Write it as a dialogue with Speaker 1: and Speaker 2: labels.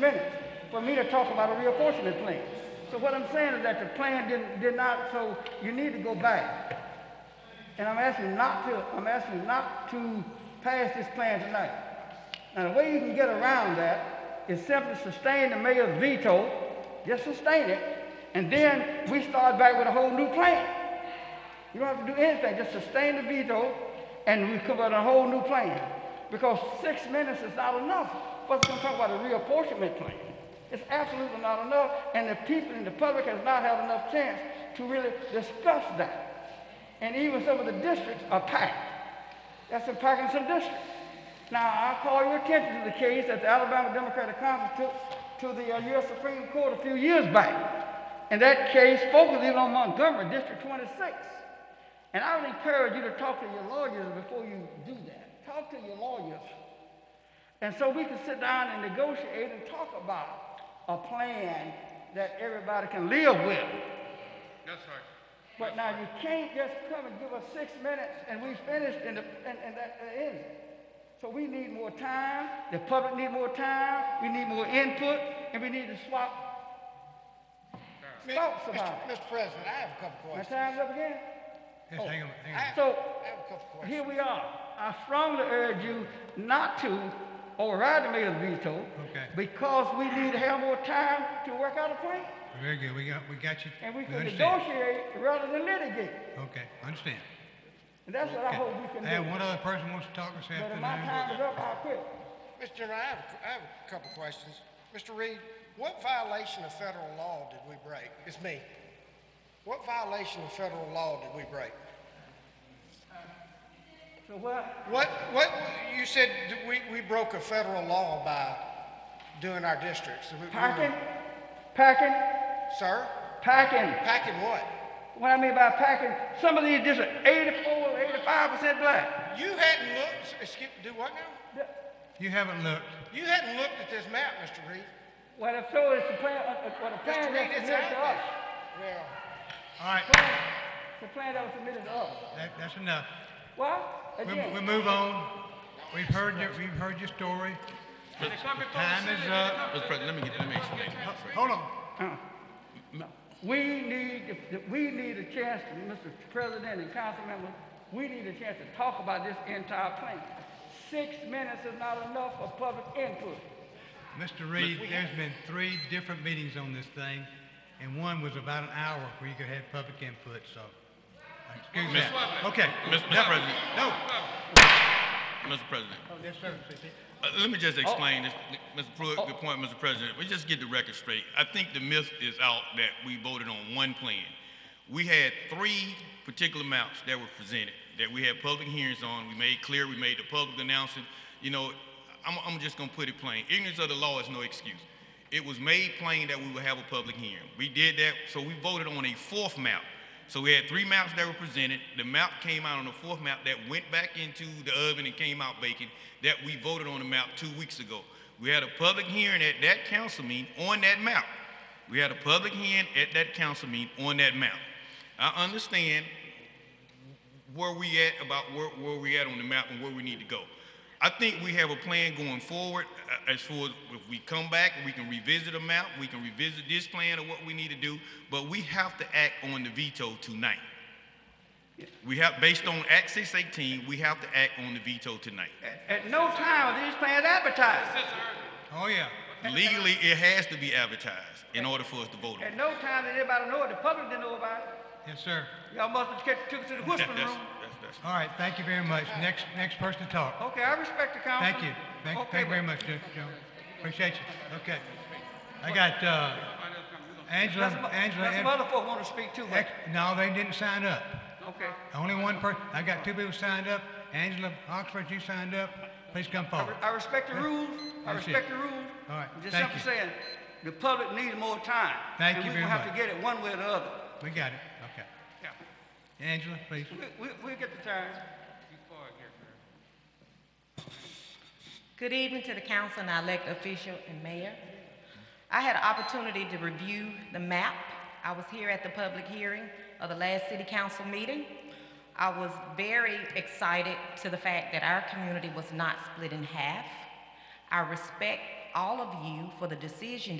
Speaker 1: minutes for me to talk about a reapportionment plan. So what I'm saying is that the plan did, did not, so you need to go back. And I'm asking not to, I'm asking not to pass this plan tonight. Now, the way you can get around that is simply sustain the mayor's veto, just sustain it, and then we start back with a whole new plan. You don't have to do anything, just sustain the veto, and we come up with a whole new plan. Because six minutes is not enough for us to talk about a reapportionment plan. It's absolutely not enough, and the people and the public has not had enough chance to really discuss that. And even some of the districts are packed. That's in Parkinson District. Now, I call your attention to the case that the Alabama Democratic Conference took to the uh, U.S. Supreme Court a few years back. And that case focused even on Montgomery, District 26. And I would encourage you to talk to your lawyers before you do that. Talk to your lawyers. And so we can sit down and negotiate and talk about a plan that everybody can live with.
Speaker 2: Yes, sir.
Speaker 1: But now you can't just come and give us six minutes and we finished and, the, and, and that that ends it. So we need more time, the public need more time, we need more input, and we need to swap
Speaker 3: Mi-
Speaker 1: thoughts
Speaker 3: Mr.
Speaker 1: about it.
Speaker 3: Mr. President, I have a couple
Speaker 1: My
Speaker 3: questions.
Speaker 1: time's up again?
Speaker 2: Yes, hang on, hang on.
Speaker 3: I-
Speaker 1: So
Speaker 3: I have a couple questions.
Speaker 1: Here we are. I strongly urge you not to override the mayor's veto
Speaker 2: Okay.
Speaker 1: because we need to have more time to work out a plan
Speaker 2: Very good, we got, we got you.
Speaker 1: and we can
Speaker 2: understand.
Speaker 1: negotiate rather than litigate.
Speaker 2: Okay, understand.
Speaker 1: And that's what I
Speaker 2: Okay.
Speaker 1: hope we
Speaker 2: I
Speaker 1: can
Speaker 2: have
Speaker 1: do.
Speaker 2: one other person wants to talk this
Speaker 1: But if my
Speaker 2: afternoon.
Speaker 1: time is up, I'll quit.
Speaker 3: Mr. General, I have, a- I have a couple questions. Mr. Reed, what violation of federal law did we break? It's me. What violation of federal law did we break?
Speaker 1: So what,
Speaker 3: What, what, you said that we, we broke a federal law by doing our districts. We- we were-
Speaker 1: packing, packing,
Speaker 3: Sir?
Speaker 1: packing.
Speaker 3: Packing what?
Speaker 1: What I mean by packing, some of these just 84, 85% black.
Speaker 3: You hadn't looked, excuse, do what now?
Speaker 2: You haven't looked,
Speaker 3: You hadn't looked at this map, Mr. Reed.
Speaker 1: What if so, it's the plan, uh, uh, what the
Speaker 3: Mr.
Speaker 1: plan
Speaker 3: Reed,
Speaker 1: that's
Speaker 3: it's
Speaker 1: submitted to us.
Speaker 3: out there. Well,
Speaker 2: all right,
Speaker 1: The plan that was submitted to us.
Speaker 2: that, that's enough.
Speaker 1: Well,
Speaker 2: We,
Speaker 1: again.
Speaker 2: we move on, we've heard your, we've heard your story. Time is up,
Speaker 4: Mr. President, let me, get- let me explain.
Speaker 2: hold on,
Speaker 1: We need, we need a chance, Mr. President and council members, we need a chance to talk about this entire plan. Six minutes is not enough for public input.
Speaker 2: Mr. Reed, there's been three different meetings on this thing, and one was about an hour where you could have public input, so. Excuse me,
Speaker 4: Miss Swafford.
Speaker 2: okay.
Speaker 4: Miss- Mr.
Speaker 2: No,
Speaker 4: President.
Speaker 2: No.
Speaker 4: Mr. President,
Speaker 2: Yes, sir, CC.
Speaker 4: uh, let me just explain this, Mr. Pruitt, good point, Mr. President. We just get the record straight. I think the myth is out that we voted on one plan. We had three particular maps that were presented, that we had public hearings on, we made clear, we made the public announcement. You know, I'm, I'm just gonna put it plain, ignorance of the law is no excuse. It was made plain that we would have a public hearing. We did that, so we voted on a fourth map. So we had three maps that were presented. The map came out on the fourth map that went back into the oven and came out baking that we voted on the map two weeks ago. We had a public hearing at that council meeting on that map. We had a public hearing at that council meeting on that map. I understand where we at about where, where we at on the map and where we need to go. I think we have a plan going forward uh, as far as if we come back, we can revisit a map, we can revisit this plan or what we need to do, but we have to act on the veto tonight. We have, based on Act 618, we have to act on the veto tonight.
Speaker 1: At- At no time are these plans advertised.
Speaker 2: Oh, yeah,
Speaker 4: Legally, it has to be advertised in order for us to vote on it.
Speaker 1: At no time did anybody know it, the public didn't know about
Speaker 2: yes, sir.
Speaker 1: it. Y'all must have kept- took it to the
Speaker 4: That-
Speaker 1: whispering
Speaker 4: that's-
Speaker 1: room.
Speaker 4: that's- that's-
Speaker 2: All right, thank you very much. Next, next person to talk.
Speaker 1: Okay, I respect the council.
Speaker 2: Thank you. Thank,
Speaker 1: Okay,
Speaker 2: thank you very
Speaker 1: but
Speaker 2: much, Joe. Joe. Appreciate you. Okay. I got, uh, Angela,
Speaker 1: That's some
Speaker 2: Angela,
Speaker 1: that's some
Speaker 2: Ed-
Speaker 1: other folk want to speak too, but,
Speaker 2: ex- no, they didn't sign up.
Speaker 1: okay.
Speaker 2: Only one person. I got two people signed up. Angela Oxford, you signed up. Please come
Speaker 1: I
Speaker 2: forward.
Speaker 1: re- I respect the rules, I
Speaker 2: That's it.
Speaker 1: respect the rules.
Speaker 2: All right,
Speaker 1: I'm Just
Speaker 2: thank
Speaker 1: simply
Speaker 2: you.
Speaker 1: saying, the public needs more time.
Speaker 2: Thank you
Speaker 1: And we
Speaker 2: very
Speaker 1: gonna have
Speaker 2: much.
Speaker 1: to get it one way or the other.
Speaker 2: We got it. Okay.
Speaker 1: Yeah.
Speaker 2: Angela, please.
Speaker 1: We, we, we'll get the time.
Speaker 5: Good evening to the council and our elected official and mayor. I had an opportunity to review the map. I was here at the public hearing of the last city council meeting. I was very excited to the fact that our community was not split in half. I respect all of you for the decision